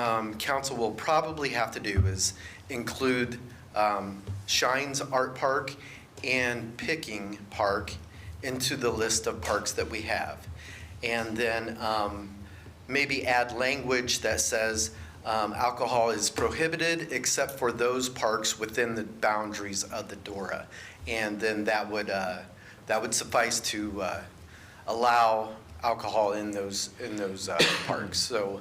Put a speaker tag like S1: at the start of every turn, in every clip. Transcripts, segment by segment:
S1: um, council will probably have to do is include um, Shines Art Park and Picking Park into the list of parks that we have. And then um, maybe add language that says um, alcohol is prohibited except for those parks within the boundaries of the DORA. And then that would, uh, that would suffice to uh, allow alcohol in those, in those uh, parks. So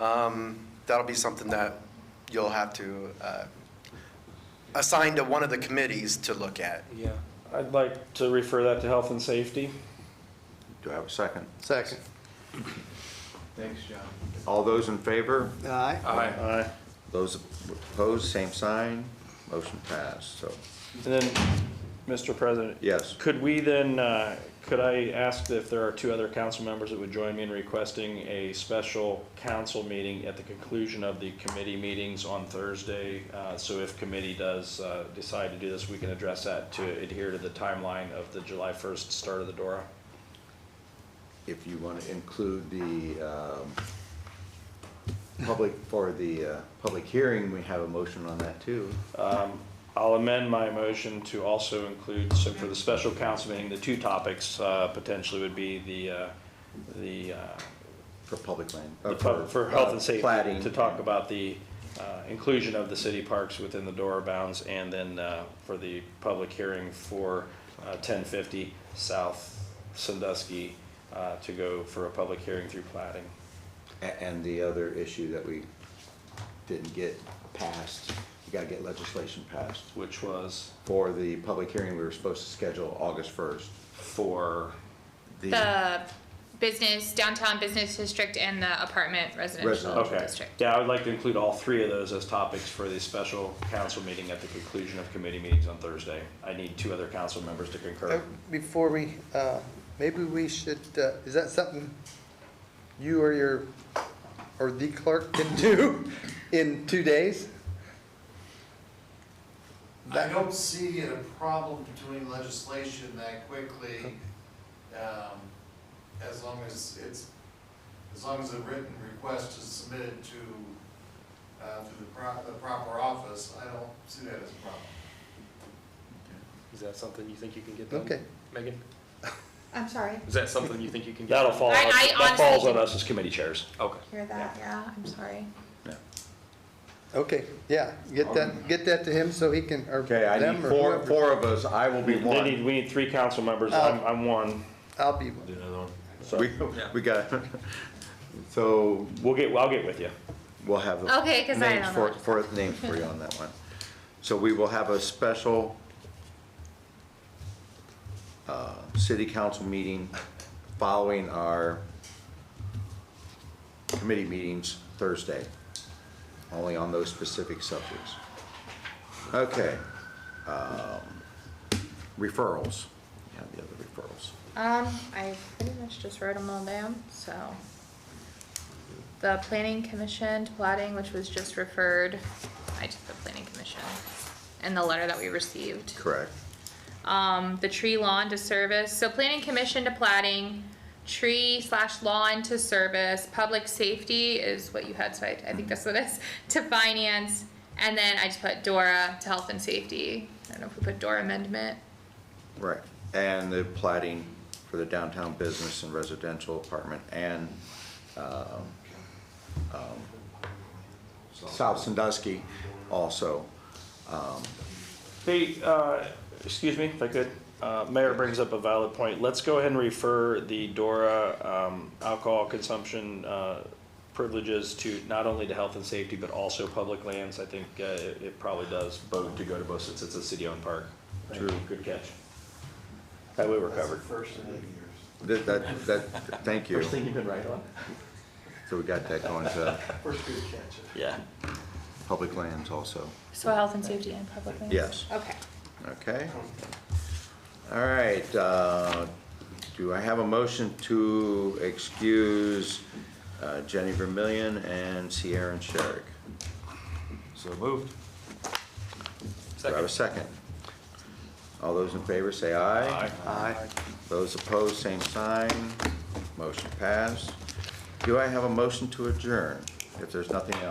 S1: um, that'll be something that you'll have to uh, assign to one of the committees to look at.
S2: Yeah, I'd like to refer that to health and safety.
S3: Do I have a second?
S4: Second.
S5: Thanks, John.
S3: All those in favor?
S4: Aye.
S2: Aye.
S3: Those opposed, same sign. Motion passed, so,
S2: And then, Mr. President,
S3: yes.
S2: could we then, uh, could I ask if there are two other council members that would join me in requesting a special council meeting at the conclusion of the committee meetings on Thursday? Uh, So if committee does uh, decide to do this, we can address that to adhere to the timeline of the July 1st start of the DORA.
S3: If you want to include the um, public, for the uh, public hearing, we have a motion on that too.
S2: I'll amend my motion to also include, so for the special council meeting, the two topics uh, potentially would be the, uh, the, uh,
S3: For public land.
S2: the
S3: uh,
S2: pub- for health and
S3: uh, plating.
S2: safety, to talk about the uh, inclusion of the city parks within the Dora bounds, and then uh, for the public hearing for uh, 1050 South Sandusky uh, to go for a public hearing through plating.
S3: A- And the other issue that we didn't get passed, we got to get legislation passed.
S2: Which was
S3: For the public hearing, we were supposed to schedule August 1st.
S2: for,
S6: The business, downtown business district and the apartment residential
S3: Residential.
S2: okay.
S6: district.
S2: Yeah, I would like to include all three of those as topics for the special council meeting at the conclusion of committee meetings on Thursday. I need two other council members to concur.
S4: Oh. Before we, uh, maybe we should, uh, is that something you or your, or the clerk can do in two days?
S5: I don't see a problem doing legislation that quickly, um, as long as it's, as long as a written request is submitted to, uh, to the pro- the proper office, I don't see that as a problem.
S7: Is that something you think you can get done?
S4: Okay.
S7: Megan,
S8: I'm sorry,
S7: is that something you think you can get?
S2: That'll fall, on-
S6: I- I
S2: that falls
S6: honestly-
S2: on us as committee chairs.
S7: Okay.
S8: hear that, yeah, I'm sorry.
S4: Okay, yeah, get that, get that to him so he can, or
S3: Okay, I
S4: them
S3: need
S4: or
S3: four,
S4: whoever.
S3: four of us, I will be
S2: They
S3: one.
S2: need, we need three council members, I'm, I'm one.
S4: I'll be,
S3: We, we got, so
S2: We'll get, I'll get with you.
S3: we'll have.
S6: Okay, 'cause I
S3: names
S6: don't
S3: for-
S6: know.
S3: For, names for you on that one. So we will have a special uh, city council meeting following our committee meetings Thursday, only on those specific subjects. Okay. um, Referrals, yeah, the other referrals.
S6: Um, I pretty much just wrote them all down, so. The planning commission plotting, which was just referred, I took the planning commission and the letter that we received.
S3: Correct.
S6: Um, the tree lawn to service, so planning commission to plating, tree slash lawn to service, public safety is what you had, so I, I think that's what it is, to finance. And then I just put Dora to health and safety. I don't know if we put Dora amendment.
S3: Right, and the plating for the downtown business and residential apartment and, um, um, South Sandusky also.
S2: Hey, uh, excuse me, if I could, uh, Mayor brings up a valid point. Let's go ahead and refer the DORA, um, alcohol consumption, uh, privileges to not only to health and safety, but also public lands. I think, uh, it, it probably does vote to go to both since it's a city-owned park. True, good catch. That way we're covered.
S5: First in eight years.
S3: That, that, that, thank you.
S2: you've been right on?
S3: So we got that going to
S5: First good catch.
S2: Yeah.
S3: public lands also,
S6: So health and safety and public lands?
S3: Yes.
S6: Okay.
S3: okay? All right, uh, do I have a motion to excuse uh, Jenny Vermillion and Sierra and Sherrick?
S7: So moved.
S3: Do I have a
S7: Second.
S3: second? All those in favor say aye.
S7: Aye.
S4: aye.
S3: Those opposed, same sign. Motion passed. Do I have a motion to adjourn? If there's nothing else.